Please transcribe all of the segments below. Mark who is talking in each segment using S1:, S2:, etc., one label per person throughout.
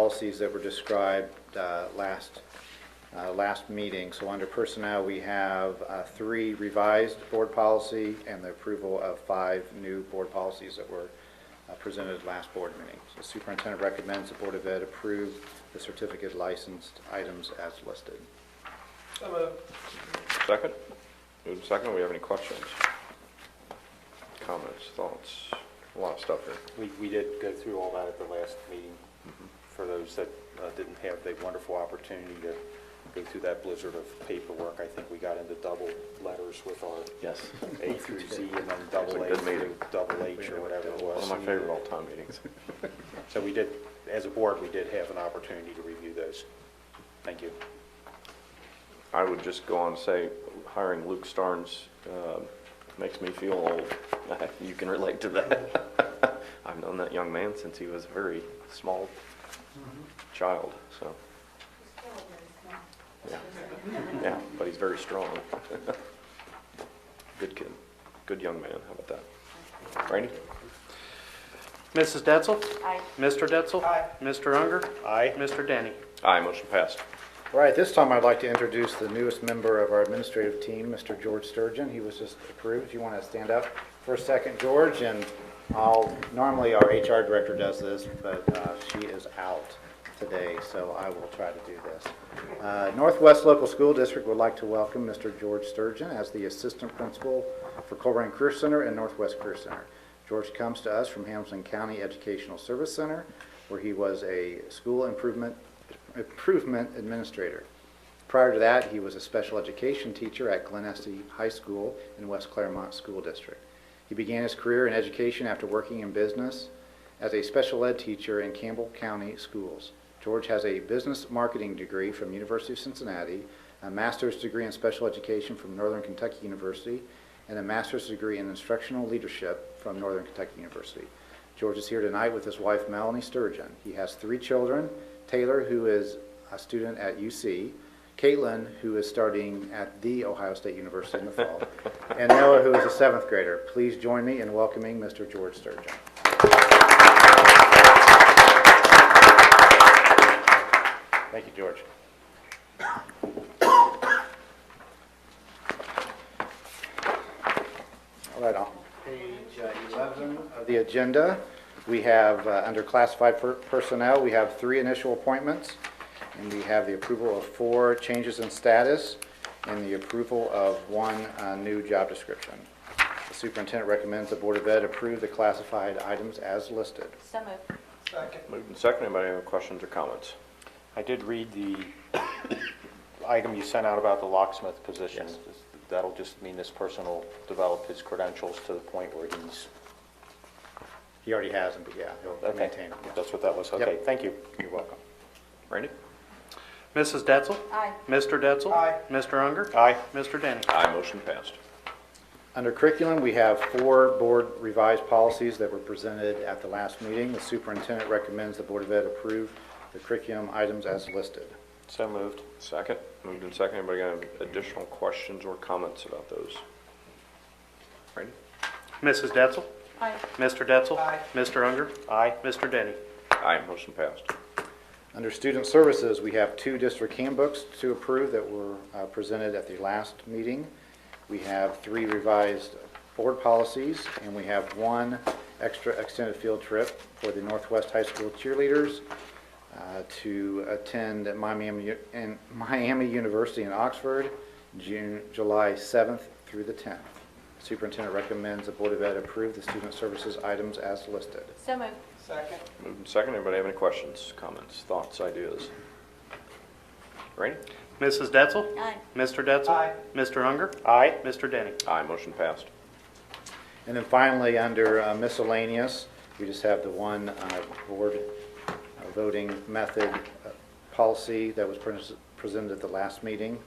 S1: policies that were described uh, last, uh, last meeting. So under personnel, we have uh, three revised board policy and the approval of five new board policies that were uh, presented at last board meeting. So Superintendent recommends the Board of Ed approve the certificate licensed items as listed.
S2: So moved.
S3: Second? Moved and second, we have any questions? Comments, thoughts? A lot of stuff here.
S4: We, we did go through all that at the last meeting. For those that uh, didn't have the wonderful opportunity to go through that blizzard of paperwork, I think we got into double letters with our
S3: Yes.
S4: A through Z and then double
S3: It was
S4: A
S3: a good
S4: through
S3: meeting.
S4: double H or whatever it
S3: One
S4: was.
S3: of my favorite all-time meetings.
S4: So we did, as a board, we did have an opportunity to review those. Thank you.
S3: I would just go on and say, hiring Luke Starnes uh, makes me feel old. You can relate to that. I've known that young man since he was a very small child, so, yeah. Yeah, but he's very strong. Good kid, good young man, how about that? Randy?
S5: Mrs. Detzel?
S6: Aye.
S5: Mr. Detzel?
S2: Aye.
S5: Mr. Unger?
S4: Aye.
S5: Mr. Denny?
S3: Aye, motion passed.
S1: All right, this time I'd like to introduce the newest member of our administrative team, Mr. George Sturgeon. He was just approved. You want to stand up for a second, George? And I'll, normally our HR director does this, but uh, she is out today, so I will try to do this. Uh, Northwest Local School District would like to welcome Mr. George Sturgeon as the Assistant Principal for Colburn Career Center and Northwest Career Center. George comes to us from Hamilton County Educational Service Center, where he was a school improvement improvement administrator. Prior to that, he was a special education teacher at Glen Estee High School in West Claremont School District. He began his career in education after working in business as a special ed teacher in Campbell County Schools. George has a business marketing degree from University of Cincinnati, a master's degree in special education from Northern Kentucky University, and a master's degree in instructional leadership from Northern Kentucky University. George is here tonight with his wife Melanie Sturgeon. He has three children, Taylor, who is a student at UC, Caitlin, who is starting at the Ohio State University in the fall, and Noah, who is a seventh grader. Please join me in welcoming Mr. George Sturgeon.
S4: Thank you, George.
S1: All right, on page uh, 11 of the agenda, we have, uh, under classified per- personnel, we have three initial appointments, and we have the approval of four changes in status, and the approval of one uh, new job description. The Superintendent recommends the Board of Ed approve the classified items as listed.
S6: So moved.
S2: Second.
S3: Moved and second, anybody have any questions or comments?
S4: I did read the item you sent out about the locksmith position. That'll just mean this person will develop his credentials to the point where he's
S1: He already has them, but yeah, he'll
S4: Okay,
S1: maintain them.
S4: that's what that was,
S1: Yep.
S4: okay, thank you, you're welcome.
S3: Randy?
S5: Mrs. Detzel?
S6: Aye.
S5: Mr. Detzel?
S2: Aye.
S5: Mr. Unger?
S4: Aye.
S5: Mr. Denny?
S3: Aye, motion passed.
S1: Under curriculum, we have four board revised policies that were presented at the last meeting. The superintendent recommends the Board of Ed approve the curriculum items as listed.
S4: So moved.
S3: Second, moved and second, anybody got any additional questions or comments about those? Randy?
S5: Mrs. Detzel?
S6: Aye.
S5: Mr. Detzel?
S2: Aye.
S5: Mr. Unger?
S4: Aye.
S5: Mr. Denny?
S3: Aye, motion passed.
S1: Under student services, we have two district handbooks to approve that were uh, presented at the last meeting. We have three revised board policies, and we have one extra extended field trip for the Northwest High School cheerleaders uh, to attend Miami U- in Miami University in Oxford, June, July 7th through the 10th. Superintendent recommends the Board of Ed approve the student services items as listed.
S6: So moved.
S2: Second.
S3: Moved and second, anybody have any questions, comments, thoughts, ideas? Randy?
S5: Mrs. Detzel?
S6: Aye.
S5: Mr. Detzel?
S2: Aye.
S5: Mr. Unger?
S4: Aye.
S5: Mr. Denny?
S3: Aye, motion passed.
S1: And then finally, under uh, miscellaneous, we just have the one uh, board uh, voting method uh, policy that was pres- presented at the last meeting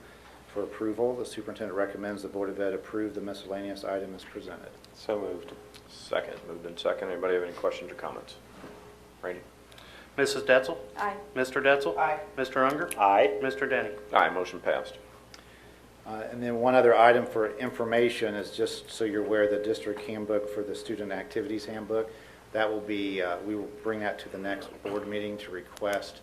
S1: for approval. The superintendent recommends the Board of Ed approve the miscellaneous item as presented.
S4: So moved.
S3: Second, moved and second, anybody have any questions or comments? Randy?
S5: Mrs. Detzel?
S6: Aye.
S5: Mr. Detzel?
S2: Aye.
S5: Mr. Unger?
S4: Aye.
S5: Mr. Denny?
S3: Aye, motion passed.
S1: Uh, And then one other item for information is just so you're aware, the district handbook for the student activities handbook, that will be, uh, we will bring that to the next board meeting to request